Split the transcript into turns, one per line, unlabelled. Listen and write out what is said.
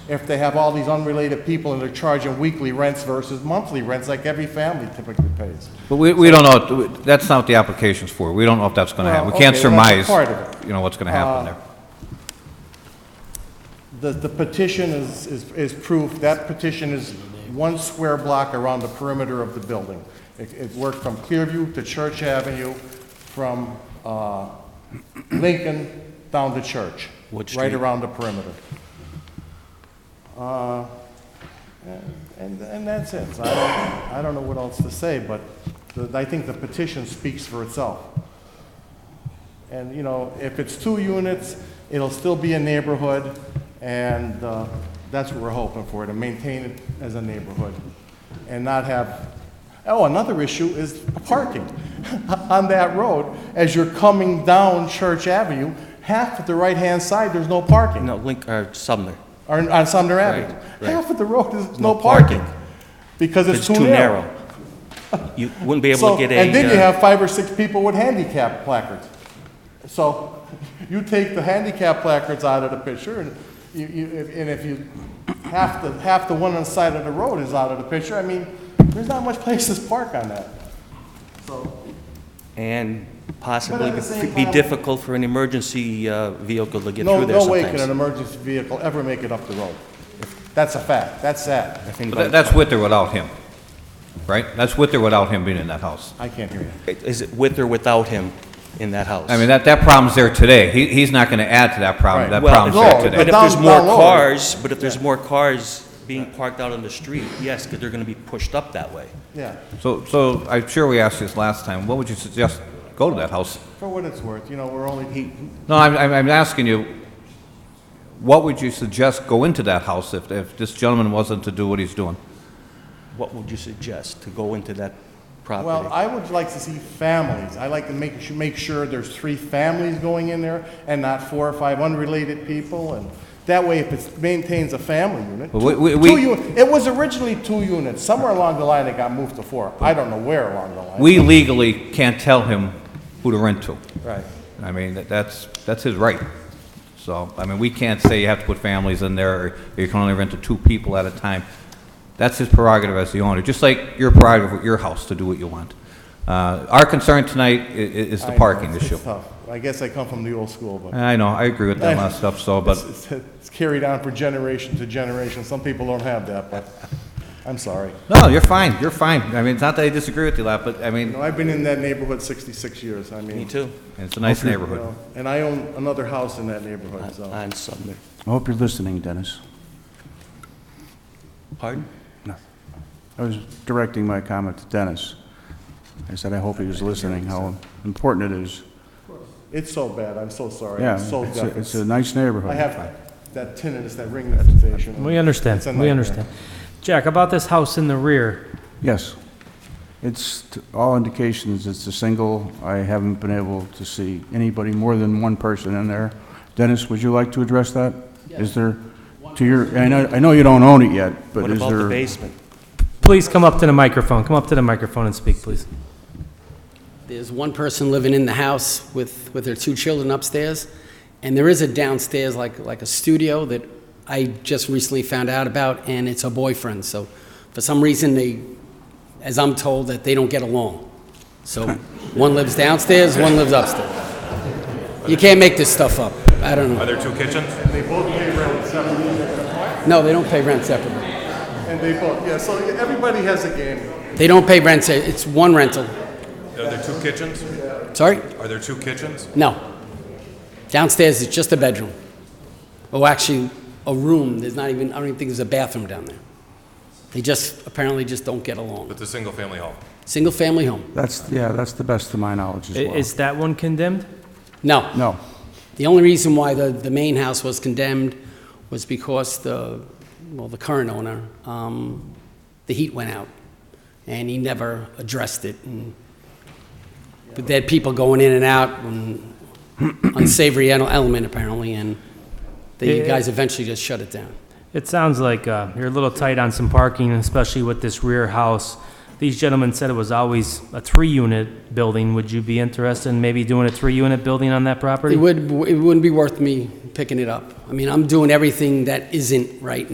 if they have all these unrelated people and they're charging weekly rents versus monthly rents like every family typically pays.
But we, we don't know, that's not what the application's for. We don't know if that's going to happen. We
Well,
can't
Oh, okay, well,
surmise,
that's part of Ah.
you know, what's going to happen there.
The, the petition is, is, is proof, that petition is one square block around the perimeter of the building. It, it worked from Clearview to Church Avenue, from, uh, Lincoln down to Church.
What
Right
street?
around the perimeter. Uh, and, and that's it. So I don't, I don't know what else to say, but the- I think the petition speaks for itself. And, you know, if it's two units, it'll still be a neighborhood, and uh, that's what we're hoping for, to maintain it as a neighborhood and not have, oh, another issue is parking on that road. As you're coming down Church Avenue, half of the right-hand side, there's no parking,
No, Link, or Sumner.
or on Sumner Avenue.
right.
Half of the road is
No
no parking
parking.
because it's too narrow.
You wouldn't be able
So,
to get a.
and then you
uh,
have five or six people with handicap placards. So you take the handicap placards out of the picture, and you, you, if- and if you, half the, half the one on the side of the road is out of the picture, I mean, there's not much places to park on that. So,
And possibly
But at the same
be
time-
difficult for an emergency uh, vehicle to get
no,
through there
no way can an
sometimes.
emergency vehicle ever make it up the road. That's a fact, that's sad.
I think
But that- that's with or without him, right? That's with or without him being in that house.
I can't hear you.
about- Is it with or without him in that house?
I mean, that, that problem's there today. He, he's not going to add to that problem.
Right.
That
Well,
problem's
no,
there
But
today.
if
Down-
there's more
down lower.
cars, but if there's more cars being parked out on the street, yes, because they're going to be pushed up that way.
Yeah,
So, so I'm sure we asked this last time. What would you suggest? Go to that house.
for what it's worth, you know, we're only,
No, I'm, I'm I'm asking you, what would you suggest go into that house if, if this gentleman wasn't to do what he's doing?
What would you suggest to go into that property?
Well, I would like to see families. I like to make, su- make sure there's three families going in there and not four or five unrelated people. And that way, if it maintains a family unit.
Well, we-
two-
we-
two uni- It was originally two units. Somewhere along the line, it got moved to four. I don't know where along the line.
We legally can't tell him who to rent to.
Right.
I mean, that- that's, that's his right. So, I mean, we can't say you have to put families in there, or you can only rent to two people at a time. That's his prerogative as the owner, just like your prerogative with your house to do what you want. Uh, Our concern tonight i- i- is the
I know,
parking
it's-
issue.
It's tough. I guess I come from the old school, but
I know, I agree with that last stuff, so, but,
it's- it's it's carried on from generation to generation. Some people don't have that, but I'm sorry.
no, you're fine, you're fine. I mean, it's not that I disagree with you, Lap, but, I
You
mean,
know, I've been in that neighborhood 66 years. I mean.
Me too,
it's a nice
you
neighborhood.
know, And I own another house in that neighborhood, so.
on Sumner.
I hope you're listening, Dennis.
Pardon?
I was directing my comment to Dennis. I said, I hope he was listening, how important it is.
It's so bad, I'm so sorry.
Yeah,
I'm so
it's a- it's a
deaf.
nice
I
neighborhood.
have that tinnitus, that ringing sensation.
We
It's a
understand, we
nightmare.
understand. Jack, about this house in the rear,
Yes. It's, t- all indications, it's a single. I haven't been able to see anybody, more than one person in there. Dennis, would you like to address that? Is there, to your, I know, I know you don't own it yet, but
What
is
about the
there,
basement?
please come up to the microphone, come up to the microphone and speak, please.
There's one person living in the house with, with their two children upstairs, and there is a downstairs, like, like a studio that I just recently found out about, and it's her boyfriend, so for some reason, they, as I'm told, that they don't get along. So, one lives downstairs, one lives upstairs. You can't make this stuff up, I don't know.
Are there two kitchens?
They both pay rent separately,
No, they don't pay rent separately.
and they both, yeah, so everybody has a game.
They don't pay rent, se- it's one rental.
Are there two kitchens?
Sorry?
Are there two kitchens?
No. Downstairs is just a bedroom. Oh, actually, a room. There's not even, I don't even think there's a bathroom down there. They just, apparently just don't get along.
But the single-family home?
Single family home.
that's, yeah, that's the best of my knowledge
I-
as well.
Is that one condemned?
No.
No,
The only reason why the, the main house was condemned was because the, well, the current owner, um, the heat went out and he never addressed it. And, but they had people going in and out and unsavory ele- element apparently and the
Yeah.
guys eventually just shut it down.
It sounds like uh, you're a little tight on some parking, especially with this rear house. These gentlemen said it was always a three-unit building. Would you be interested in maybe doing a three-unit building on that property?
It would, it wouldn't be worth me picking it up. I mean, I'm doing everything that isn't right